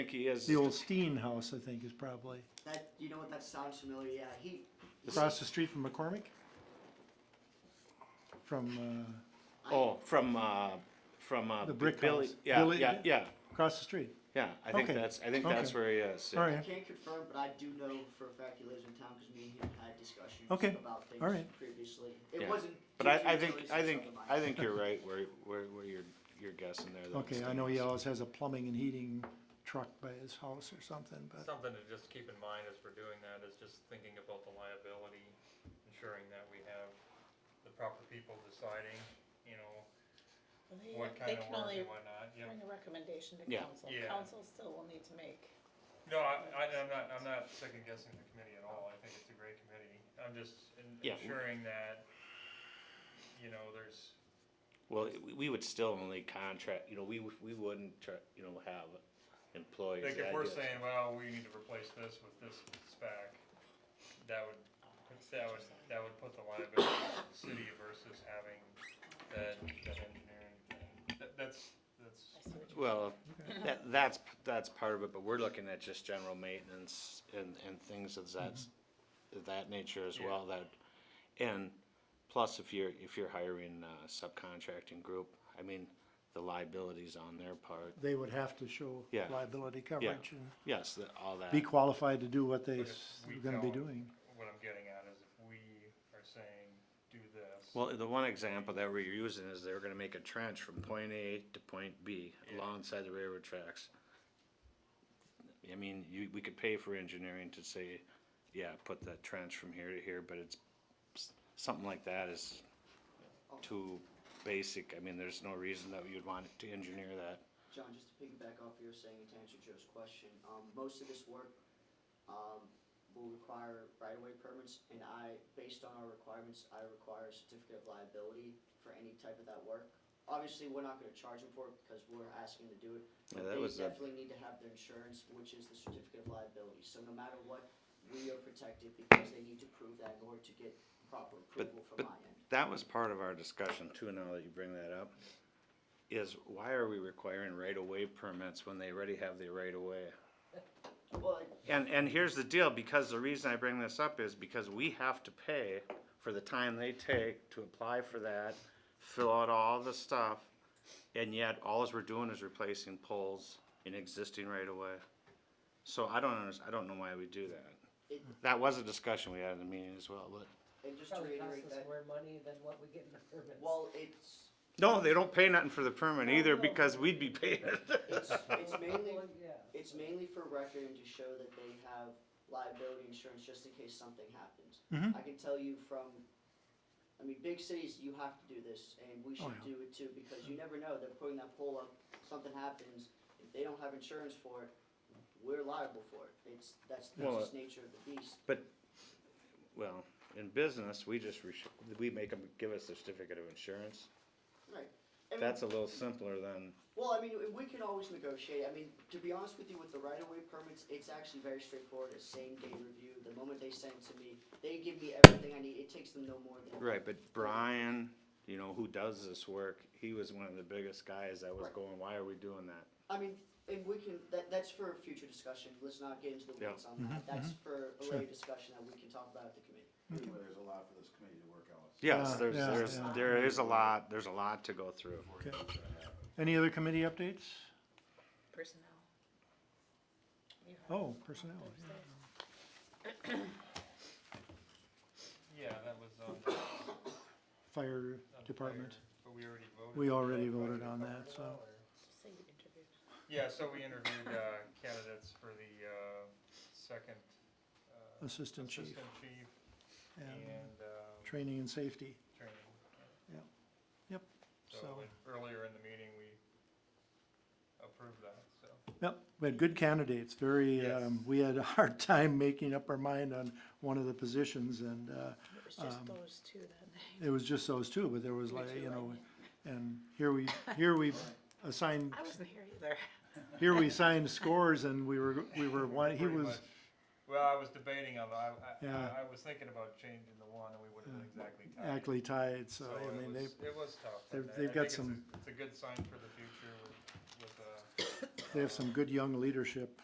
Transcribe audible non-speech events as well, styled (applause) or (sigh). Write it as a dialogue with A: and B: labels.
A: think he is.
B: The old Steen House, I think, is probably
C: That, you know what, that sounds familiar, yeah, he,
B: across the street from McCormick. From, uh,
A: Oh, from, uh, from, uh.
B: The brick
A: Billy-
B: house.
A: Yeah,
B: Billy-
A: yeah, yeah,
B: across the street,
A: yeah. I think
B: Okay.
A: that's, I think that's
B: Okay.
A: where he is. yeah.
B: all
C: I
B: right,
C: can't confirm, but I do know for a fact he lives in town, cause me and him had discussions
B: Okay,
C: about things
B: alright.
C: previously. It
A: Yeah.
C: wasn't.
A: But I, I
C: huge
A: think,
C: utilities
A: I
C: and
A: think,
C: stuff of
A: I
C: mine.
A: think you're right where, where, where you're, you're guessing there. that
B: okay,
A: it's
B: I know he
A: Steen House.
B: always has a plumbing and heating truck by his house or something, but,
D: Something to just keep in mind as we're doing that is just thinking about the liability, ensuring that we have the proper people deciding, you know,
E: They,
D: what
E: they
D: kind of
E: can
D: work
E: only
D: and whatnot, yeah.
E: bring a recommendation to
A: Yeah.
E: council.
D: Yeah.
E: Council still will need to make.
D: No, I, I, I'm not, I'm not second guessing the committee at all, I think it's a great committee, I'm just en-
A: Yeah.
D: ensuring that, you know, there's,
A: Well, we- we would still only contract, you know, we, would- we wouldn't, try- you know, have employees.
D: like, if
A: that
D: we're
A: just-
D: saying, well, we need to replace this with this spec, that would, that would, that would put the liability on the city versus having that, that engineering thing, that, that's, that's.
E: I see what you're
A: Well, that, that's, that's part of it, but we're looking at just general maintenance and, and things of that, of that nature as
D: Yeah.
A: well, that, and plus if you're, if you're hiring a subcontracting group, I mean, the liabilities on their part,
B: they would have to show
A: Yeah.
B: liability coverage and
A: yes, that, all that.
B: be qualified to do what they
D: But if we
B: are gonna be
D: don't-
B: doing.
D: What I'm getting at is if we are saying, do this.
A: Well, the one example that we're using is they were gonna make a trench from point A to point B
D: Yeah.
A: alongside the railroad tracks. I mean, you, we could pay for engineering to say, yeah, put that trench from here to here, but it's, something like that is too basic, I mean, there's no reason that you'd want to engineer that.
C: John, just to piggyback off what you were saying and to answer Joe's question, um, most of this work, um, will require right-of-way permits, and I, based on our requirements, I require a certificate of liability for any type of that work. Obviously, we're not gonna charge them for it because we're asking to do it,
A: Yeah,
C: but
A: that
C: they
A: was a-
C: definitely need to have their insurance, which is the certificate of liability, so no matter what, we are protected because they need to prove that in order to get proper
A: But-
C: approval
A: but-
C: from my end.
A: That was part of our discussion too, now that you bring that up, is why are we requiring right-of-way permits when they already have the right-of-way?
C: Well, I-
A: And, and here's the deal, because the reason I bring this up is because we have to pay for the time they take to apply for that, fill out all the stuff, and yet all we're doing is replacing poles in existing right of way. So I don't understand, I don't know why we do that.
C: It-
A: That was a discussion we had in the meeting as well, but,
C: and just to
F: Probably
C: reiterate
F: costs us
C: that,
F: more money than what we get in the permits.
C: well, it's,
A: no, they don't pay nothing for the permit
F: No,
A: either
F: no.
A: because we'd be paying it. (laughs)
C: it's, it's mainly
F: Well, yeah.
C: It's mainly for record and to show that they have liability insurance just in case something happens.
A: Mm-hmm.
B: Mhm.
C: I can tell you from, I mean, big cities, you have to do this, and
A: Oh,
C: we should
B: yeah.
C: do it too, because you never know, they're putting that pole up, something happens, if they don't have insurance for it, we're liable for it, it's, that's, that's
A: Well,
C: just nature of the beast.
A: Well, in business, we just, re- we make them give us a certificate of insurance.
C: Right. I mean,
A: That's a little simpler than,
C: Well, I mean, we can always negotiate. I mean, to be honest with you, with the right-of-way permits, it's actually very straightforward. It's same-day review. The moment they send it to me, they give me everything I need. It takes them no more than.
A: Right, but Brian, you know, who does this work, he was one of the biggest guys that was
C: Right.
A: going, why are we doing that?
C: I mean, and we can, that, that's for future discussion. Let's not get into the weeds on that. That's for a later discussion that we can talk about at the committee.
G: Anyway, there's a lot for this committee to work out.
A: Yes,
B: Yeah,
A: there's,
B: yeah,
A: there's,
B: yeah.
A: there is a lot, there's a lot to go through.
B: Okay. Any other committee updates?
E: Personnel. You have
B: Oh, personnel, yeah.
E: Thursday.
D: Yeah, that was, um.
B: fire
D: on
B: department,
D: fire, But we already voted.
B: we
D: on
B: already
D: that,
B: voted
D: but-
B: on that, so.
E: Did you say you interviewed?
D: Yeah, so we interviewed, uh, candidates for the, uh, second, uh.
B: Assistant chief.
D: Assistant chief
B: and
D: and, um,
B: training and safety.
D: training. yeah.
B: Yep,
D: So,
B: so,
D: and earlier in the meeting, we approved that, so.
B: yep, we had good candidates, very,
D: Yes.
B: um, we had a hard (laughs) time making up our mind on one of the positions and, uh,
E: It was just
B: Um,
E: those two that night.
B: it was just those two, but there was
E: Me
B: like,
E: too,
B: you
E: I
B: know,
E: mean.
B: and here
D: (laughs)
B: we, here we assigned,
E: I wasn't here either.
B: here we signed scores and we were, we were, one. he
D: Pretty
B: was,
D: much. Well, I was debating on, the- I,
B: Yeah.
D: I, I was thinking about changing the one, and we would have been exactly tied.
B: actually tied, so,
D: it
B: I mean,
D: was-
B: they,
D: It was tough.
B: they've-
D: and I-
B: they've got
D: I think it's a-
B: some-
D: It's a good sign for the future with, with, uh,
B: they have some good young leadership.